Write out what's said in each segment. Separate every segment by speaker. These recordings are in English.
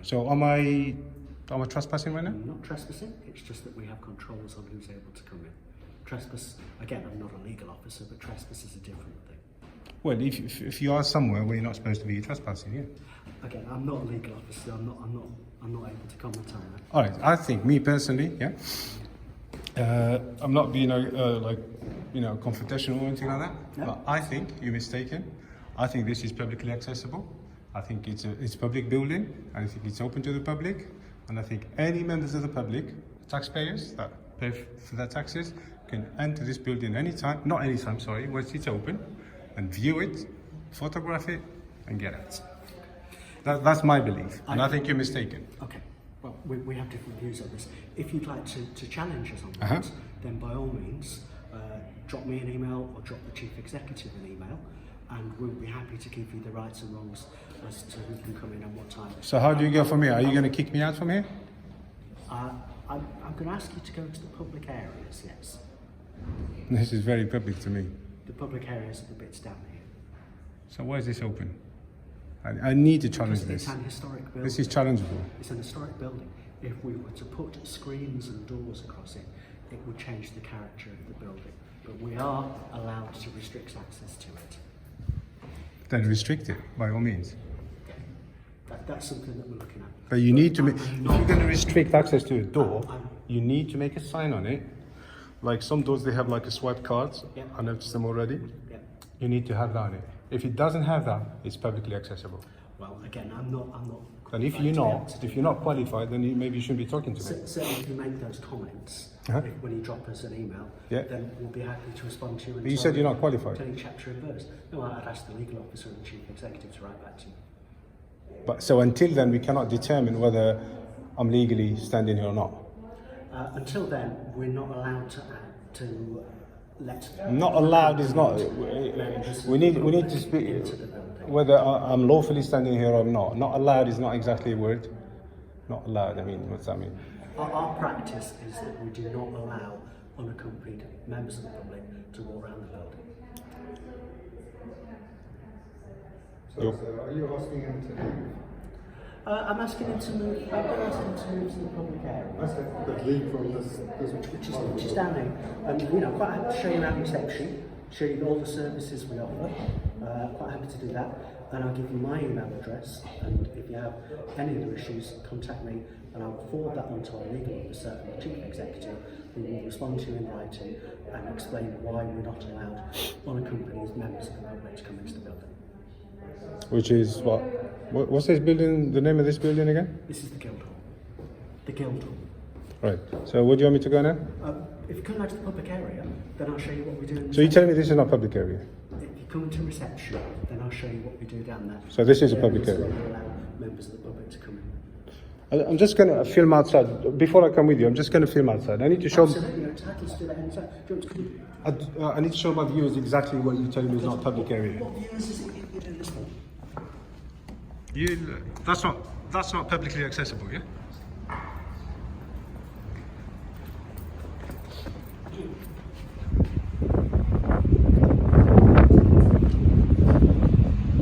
Speaker 1: So am I am I trespassing right now?
Speaker 2: Not trespassing, it's just that we have controls on who's able to come in. Trespass, again, I'm not a legal officer, but trespass is a different thing.
Speaker 1: Well, if, if, if you are somewhere where you're not supposed to be, you're trespassing, yeah.
Speaker 2: Again, I'm not a legal officer, I'm not, I'm not, I'm not able to comment on that.
Speaker 1: All right, I think, me personally, yeah, uh, I'm not being uh, uh, like, you know, confrontational or anything like that,
Speaker 2: No.
Speaker 1: but I think you're mistaken. I think this is publicly accessible. I think it's a it's a public building, and I think it's open to the public, and I think any members of the public, taxpayers that pay f- for their taxes, can enter this building anytime, not anytime, sorry, once it's open, and view it, photograph it, and get out. That, that's my belief, and I think you're mistaken.
Speaker 2: Okay, well, we, we have different views on this. If you'd like to, to challenge us on
Speaker 1: Uh-huh.
Speaker 2: that, then by all means, uh, drop me an email or drop the chief executive an email, and we'll be happy to give you the rights and wrongs as to who can come in and what time.
Speaker 1: So how do you go from here? Are you going to kick me out from here?
Speaker 2: Uh, I'm, I'm going to ask you to go to the public areas, yes.
Speaker 1: This is very public to me.
Speaker 2: The public areas are the bits down here.
Speaker 1: So why is this open? I, I need to challenge
Speaker 2: It's,
Speaker 1: this.
Speaker 2: it's an historic building.
Speaker 1: This is challengeable.
Speaker 2: It's an historic building. If we were to put screens and doors across it, it would change the character of the building. But we are allowed to restrict access to it.
Speaker 1: Then restrict it by all means.
Speaker 2: That, that's something that we're looking at.
Speaker 1: But you need to make. If you're going to restrict access to a door, you need to make a sign on it. Like some doors, they have like a swipe card.
Speaker 2: Yeah.
Speaker 1: I noticed them already.
Speaker 2: Yeah.
Speaker 1: You need to have that on it. If it doesn't have that, it's publicly accessible.
Speaker 2: Well, again, I'm not. I'm not.
Speaker 1: And if
Speaker 2: qualified
Speaker 1: you're
Speaker 2: to be able
Speaker 1: not,
Speaker 2: to do
Speaker 1: if you're not qualified, then you, maybe you shouldn't be talking to me.
Speaker 2: So, certainly, if you make those comments
Speaker 1: Uh-huh.
Speaker 2: if- when you drop us an email,
Speaker 1: Yeah.
Speaker 2: then we'll be happy to respond to you. and
Speaker 1: But you
Speaker 2: tell
Speaker 1: said you're not qualified.
Speaker 2: Tell you chapter and verse. No, I- I'd ask the legal officer and chief executive to write back to you.
Speaker 1: But so until then, we cannot determine whether I'm legally standing here or not.
Speaker 2: Uh, until then, we're not allowed to act, to let.
Speaker 1: Not allowed is not. We need we need to speak whether I- I'm lawfully standing here or not. Not allowed is not exactly a word. Not allowed. I mean, what's that mean?
Speaker 2: Our, our practice is that we do not allow unaccompanied members of the public to walk around the building.
Speaker 3: So,
Speaker 1: Yep.
Speaker 3: so are you asking him to leave?
Speaker 2: Uh, I'm asking him to move. I've been asking him to move to the public area,
Speaker 3: Okay, but leave from this, this
Speaker 2: which is which is down there. And you know, quite happy to show you around reception, show you all the services we offer. Uh, quite happy to do that. And I'll give you my email address. And if you have any other issues, contact me, and I'll forward that on to our legal officer and the chief executive, who will respond to you in writing and explain why we're not allowed unaccompanied members of the public to come into the building.
Speaker 1: Which is what? what- What's this building? The name of this building again?
Speaker 2: This is the Guildhall. The Guildhall.
Speaker 1: Right. So, where do you want me to go now?
Speaker 2: Uh, if you come out to the public area, then I'll show you what we do. In
Speaker 1: So you
Speaker 2: reception.
Speaker 1: tell me this is not public area.
Speaker 2: if you come to reception, then I'll show you what we do down there.
Speaker 1: So this is a
Speaker 2: There
Speaker 1: public
Speaker 2: where
Speaker 1: area.
Speaker 2: we allow members of the public to come in.
Speaker 1: I- I'm just gonna film outside before I come with you. I'm just gonna film outside. I need to show.
Speaker 2: Absolutely, you're entitled to do that anytime. Do you want to come
Speaker 1: I, uh, I need to show my viewers exactly what you tell me is not public
Speaker 2: in?
Speaker 1: area.
Speaker 2: What viewers is it you- you do this for?
Speaker 1: You. That's not. That's not publicly accessible. Yeah.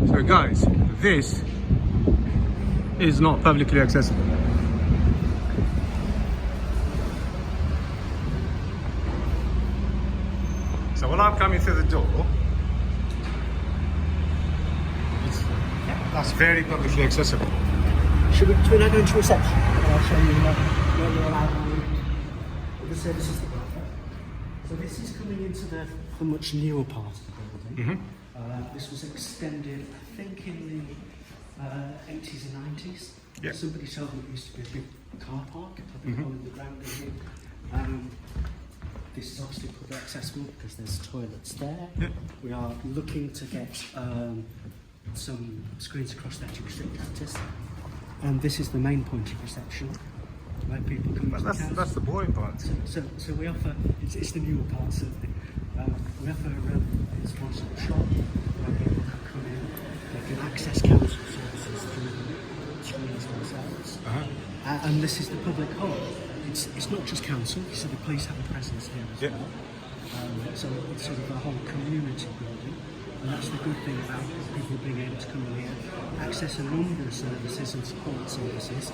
Speaker 1: So guys, this is not publicly accessible. So when I'm coming through the door, it's, that's very publicly accessible.
Speaker 2: Should we, should we now go into reception? And I'll show you what, what we're allowed and the services that we offer. So this is coming into the, the much newer part of the building.
Speaker 1: Mm-hmm.
Speaker 2: Uh, this was extended, I think, in the uh, 80s and 90s.
Speaker 1: Yeah. Mm-hmm.
Speaker 2: Somebody told me it used to be a big car park, a big hole in the ground here. Um, this is obviously public accessible because there's toilets there. We are looking to get um, some screens across there to restrict access. And this is the main point of reception where people come
Speaker 1: But
Speaker 2: to
Speaker 1: that's
Speaker 2: the
Speaker 1: that's
Speaker 2: council.
Speaker 1: the boring part.
Speaker 2: So, so we offer, it's, it's the newer part certainly, um, we offer um, it's one stop shop where people can come in, they can access council services through screens themselves.
Speaker 1: Uh-huh.
Speaker 2: Uh, and this is the public hall. It's, it's not just council, so the police have a presence here as
Speaker 1: Yeah.
Speaker 2: well. Um, so it's sort of a whole community building. And that's the good thing about people being able to come in here, access a number of services and support services